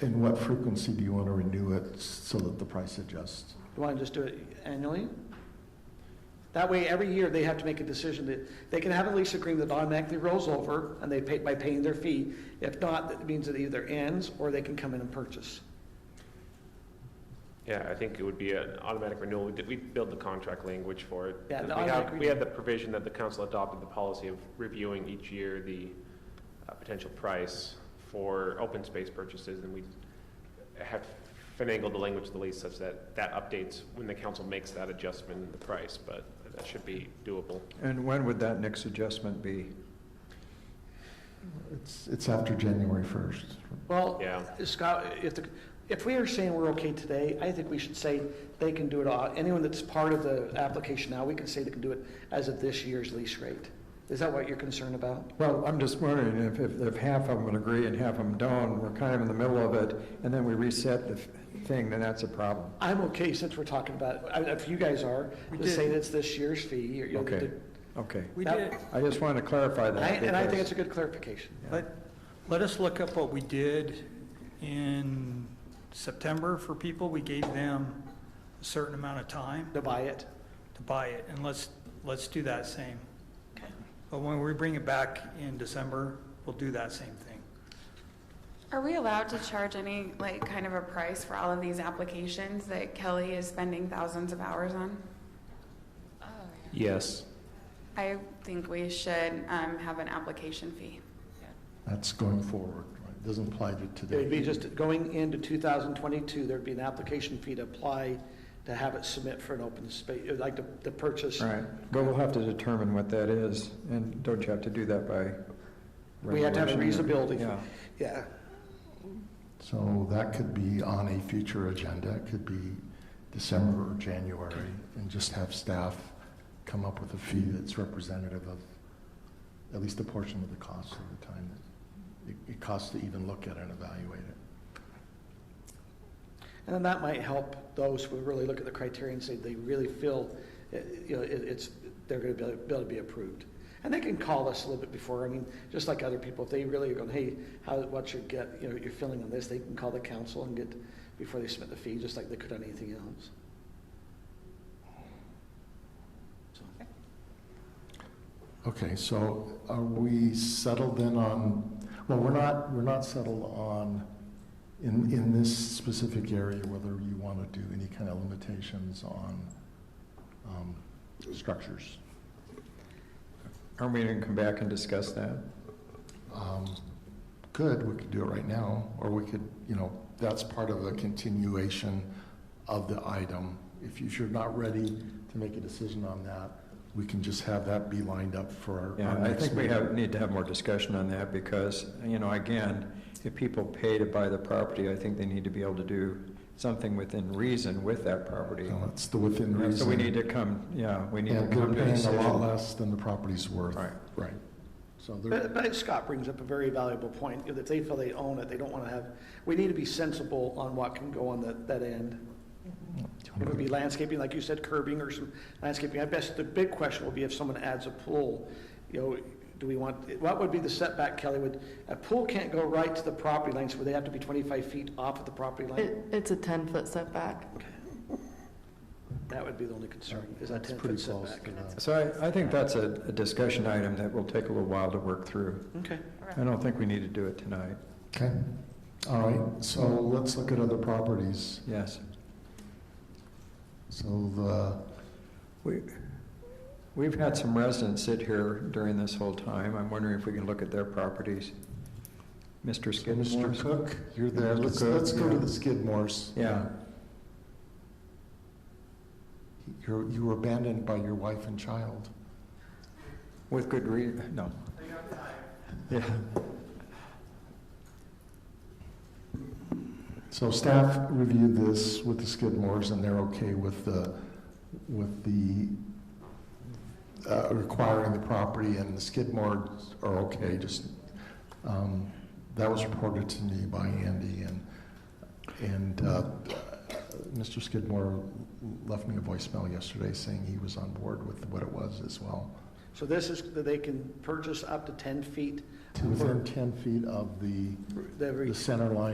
And what frequency do you want to renew it so that the price adjusts? You want to just do it annually? That way, every year, they have to make a decision that, they can have a lease agreement that automatically rolls over, and they pay, by paying their fee. If not, that means it either ends, or they can come in and purchase. Yeah, I think it would be an automatic renewal. We did, we built the contract language for it. Yeah, the We automatic have- We had the provision that the council adopted the policy of reviewing each year the uh, potential price for open space purchases, and we have finagled the language of the lease such that that updates when the council makes that adjustment in the price, but that should be doable. And when would that next adjustment be? It's, it's after January 1st. Well, Yeah. Scott, if, the- if we are saying we're okay today, I think we should say they can do it, au- anyone that's part of the application now, we can say they can do it as of this year's lease rate. Is that what you're concerned about? Well, I'm just wondering if, if, if half of them would agree and half of them don't, we're kind of in the middle of it, and then we reset the f- thing, then that's a problem. I'm okay, since we're talking about, I- if you guys are, to say did. that's this year's fee, you're- you'll get Okay. to Okay. We That- did, I just wanted to clarify And I, that. and I think Uh, because- it's a good clarification. let, let us look up what we did in September for people. We gave them a certain amount of time To buy it, to buy it, and let's, let's do that same. But when we bring it back in December, we'll do that same thing. Are we allowed to charge any, like, kind of a price for all of these applications that Kelly is spending thousands of hours on? Yes. I think we should um, have an application fee. That's going forward, right? It Doesn't apply to it would be today. just going into 2022, there'd be an application fee to apply to have it submit for an open space, like to, to purchase. All right, but we'll have to determine what that is, and don't you have to do that by? We have to have a resolution? reasonability. Yeah. Yeah, So that could be on a future agenda, it could be December or January, and just have staff come up with a fee that's representative of at least a portion of the cost of the time that it- it costs to even look at and evaluate it. and then that might help those who really look at the criteria and say they really feel, uh, you know, it, it's, they're gonna be able be able to be approved. And they can call us a little bit before, I mean, just like other people, if they really are going, hey, how, what's your get, you know, your feeling on this, they can call the council and get, before they submit the fee, just like they could on anything else. So. Okay, so are we settled then on, well, we're not, we're not settled on, in, in this specific area, whether you want to do any kind of limitations on um, structures. Aren't we gonna come back and discuss that? Um, Good, we could do it right now, or we could, you know, that's part of the continuation of the item. If you- if you're not ready to make a decision on that, we can just have that be lined up for our- Yeah, our I next think we meeting. have, need to have more discussion on that, because, you know, again, if people pay to buy the property, I think they need to be able to do something within reason with that property. So That's the within reason. So we need to come, yeah, we need to And they're come to a paying a lot decision. less than the property's worth. Right. Right. So they're, But, but Scott brings up a very valuable point, you know, that they feel they own it, they don't want to have, we need to be sensible on what can go on that, that end. Mm-hmm. It would be landscaping, like you said, curbing or some landscaping, I guess the big question will be if someone adds a pool, you know, do we want, what would be the setback, Kelly, would, a pool can't go right to the property line, so would they have to be twenty-five feet off of the property line? It, it's a 10-foot setback. That would be the only concern, is that That's ten foot pretty close setback. to that. So I, I think that's a, a discussion item that will take a little while to work through. Okay, I don't think we need to do it tonight, Okay, all right, so let's look at other properties. yes. So the, We, we've had some residents sit here during this whole time, I'm wondering if we can look at their properties. Mr. so Mr. Skidmore? Cook, you're there, Mr. let's, Cook, let's go to yeah. the Skidmores. Yeah, You're, you were abandoned by your wife and child. with good rea, no. Yeah, So staff reviewed this with the Skidmores, and they're okay with the, with the, uh, requiring the property, and the Skidmores are okay, just, um, that was reported to me by Andy, and, and, uh, Mr. Skidmore left me a voicemail yesterday saying he was on board with what it was as well. so this is, that they can purchase up to ten feet Within ten feet of the, every. the center line